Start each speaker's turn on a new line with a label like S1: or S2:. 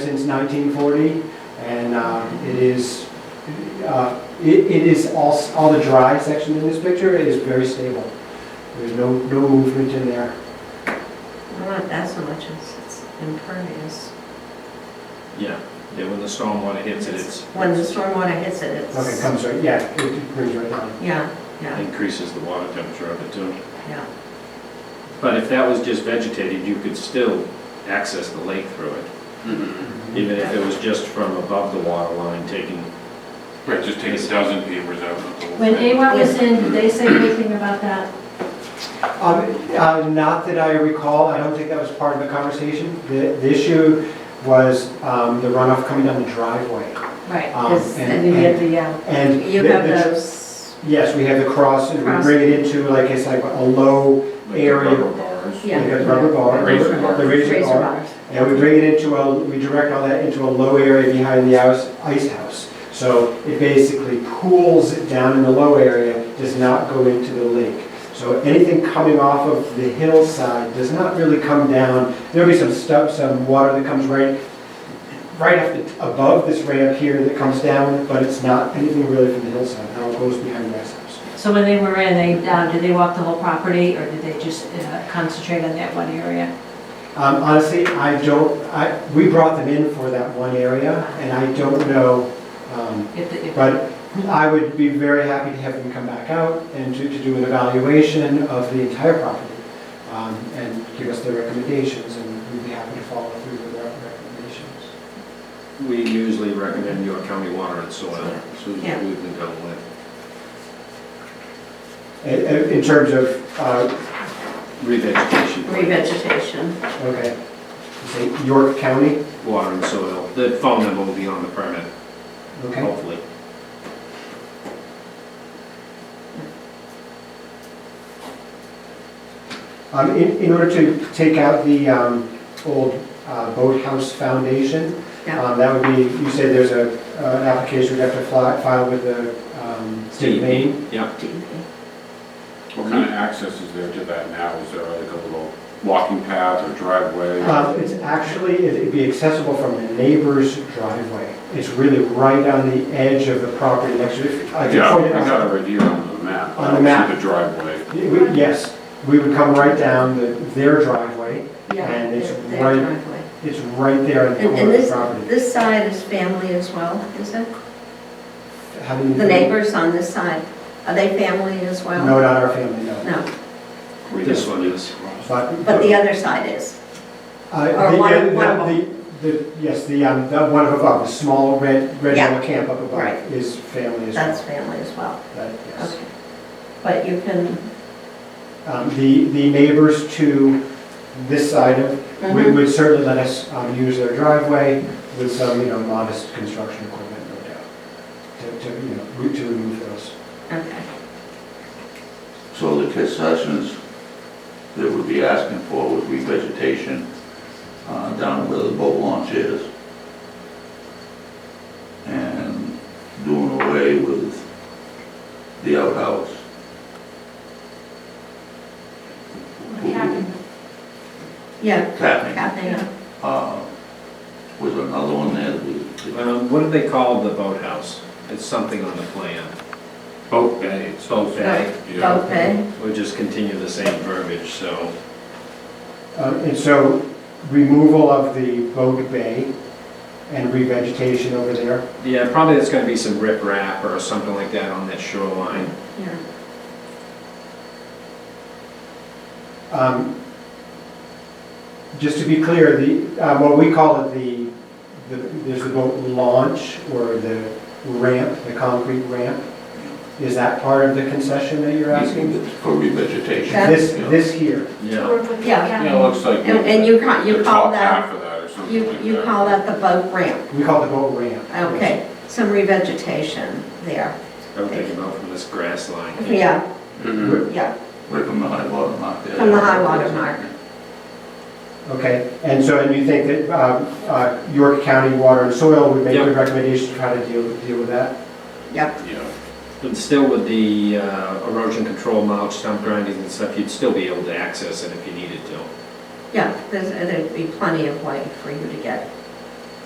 S1: since 1940, and um, it is, uh, it it is all, s- all the dry section in this picture, it is very stable. There's no, no movement in there.
S2: Well, Not that so much, it's it's impervious.
S3: Yeah, yeah, when the stormwater hits it, it's.
S2: When the stormwater hits it,
S1: Like it
S2: it's,
S1: comes right, yeah, it- it brings right down.
S2: yeah, yeah,
S3: Increases the water temperature of it too.
S2: yeah.
S3: But if that was just vegetated, you could still access the lake through it,
S4: Mm-hmm.
S3: even if it was just from above the water line taking.
S4: Right, just take a dozen papers out of the whole
S5: When
S4: thing.
S5: AWAC was in, did they say anything about that?
S1: Um, uh, Not that I recall, I don't think that was part of the conversation. The the issue was um, the runoff coming down the driveway.
S2: Right,
S1: Um,
S2: 'cause-
S1: and-
S2: and you get the, yeah.
S1: And
S2: You
S1: the-
S2: have
S1: the-
S2: those,
S1: Yes, we have the cross, and we
S2: Cross.
S1: bring it into, like, it's like a low,
S4: Like the
S1: area.
S4: rubber bars.
S2: Yeah.
S1: like a rubber bar.
S4: Razor bar.
S1: The razor
S2: razor
S1: bar.
S2: bars.
S1: And we bring it into a, we direct all that into a low area behind the house, ice house. So it basically pools it down in the low area, does not go into the lake. So anything coming off of the hillside does not really come down. There'll be some stuff, some water that comes right, right up the- above this ramp here that comes down, but it's not anything really from the hillside. It all goes behind the ice house.
S5: So when they were in, they, uh, did they walk the whole property, or did they just uh, concentrate on that one area?
S1: Um, honestly, I don't, I, we brought them in for that one area, and I don't know, um,
S5: If the- if-
S1: But I would be very happy to have them come back out and to, to do an evaluation of the entire property um, and give us their recommendations, and we'd be happy to follow through with our recommendations.
S3: We usually recommend York County Water and Soil, so we've
S2: Yeah.
S3: been going with.
S1: In- In, in terms of, uh,
S3: Revegetation.
S2: revegetation.
S1: okay, say York County,
S3: Water and soil. The phone number will be on the permit,
S1: okay?
S3: hopefully.
S1: Um, in, in order to take out the um, old uh, boathouse foundation,
S2: Yeah.
S1: um, that would be, you said there's a, uh, an application we'd have to fly- file with the um, state of Maine?
S3: Yeah,
S4: What kind of access is there to that now? Is there like a little walking path or driveway?
S1: Um, It's actually, it- it'd be accessible from the neighbor's driveway. It's really right on the edge of the property next to it. I can
S4: Yeah,
S1: point
S4: I
S1: it out.
S4: got it right here on the map.
S1: On the map.
S4: I don't see the driveway.
S1: We- Yes, we would come right down the- their driveway.
S2: Yeah,
S1: And it's
S2: their- their
S1: right-
S2: driveway.
S1: It's right there on the
S2: And and
S1: corner of the
S2: this,
S1: property.
S2: this side is family as well, is it?
S1: How do you-
S2: The neighbors on this side, are they family as well?
S1: No, not our family, no.
S2: No,
S3: this one is.
S1: But
S2: but the other side is.
S1: Uh,
S2: Or
S1: the-
S2: one of-
S1: the-
S2: one of
S1: the- the- Yes, the, um, the one above, the small red, red
S2: Yeah.
S1: yellow camp up
S2: Right.
S1: above is family as well.
S2: That's family as well,
S1: That- yes.
S2: okay. But you can,
S1: Um, The, the neighbors to this side of, would
S2: Mhm.
S1: would certainly let us um, use their driveway with some, you know, modest construction equipment, no doubt, to, to, you know, re- to remove those.
S2: okay,
S6: So the concessions that would be asking for would be vegetation uh, down where the boat launch is. And doing away with the outhouse.
S5: What happened?
S2: yeah,
S6: Tapping,
S2: Kathy, yeah.
S6: uh, was another one there that we,
S3: Um, What do they call the boathouse? It's something on the plan.
S4: Boat bay.
S3: Boat bay.
S4: Yeah.
S2: okay,
S3: We'll just continue the same verbiage, so.
S1: Um, And so removal of the boat bay and revegetation over there.
S3: Yeah, probably there's gonna be some riprap or something like that on that shoreline.
S2: yeah.
S1: Um, Just to be clear, the, uh, what we call it, the, the- there's the boat launch or the ramp, the concrete ramp. Is that part of the concession that you're asking?
S6: for revegetation.
S2: Yeah.
S1: This,
S6: Yeah.
S1: this here,
S3: Yeah.
S5: Work with the
S2: Yeah.
S4: Yeah, it
S5: county?
S4: looks like.
S2: And, and you ca-
S4: the
S2: you call
S4: top
S2: that,
S4: Half of that or something
S2: you,
S4: like that.
S2: you call that the boat ramp,
S1: we call it the boat ramp.
S2: okay, some revegetation there,
S3: I'm thinking about from this grass line.
S2: yeah,
S4: Mhm.
S2: yeah,
S6: Right from the high water mark there.
S2: from the high water mark,
S1: Okay, and so, and you think that um, uh, York County Water and Soil would make good
S3: Yep. recommendations
S1: recommendations to how to deal, deal with that?
S2: yep,
S4: Yeah.
S3: But still with the uh, erosion control mulch, stump grinding and stuff, you'd still be able to access it if you needed to.
S2: yeah, there's, there'd be plenty of way for you to get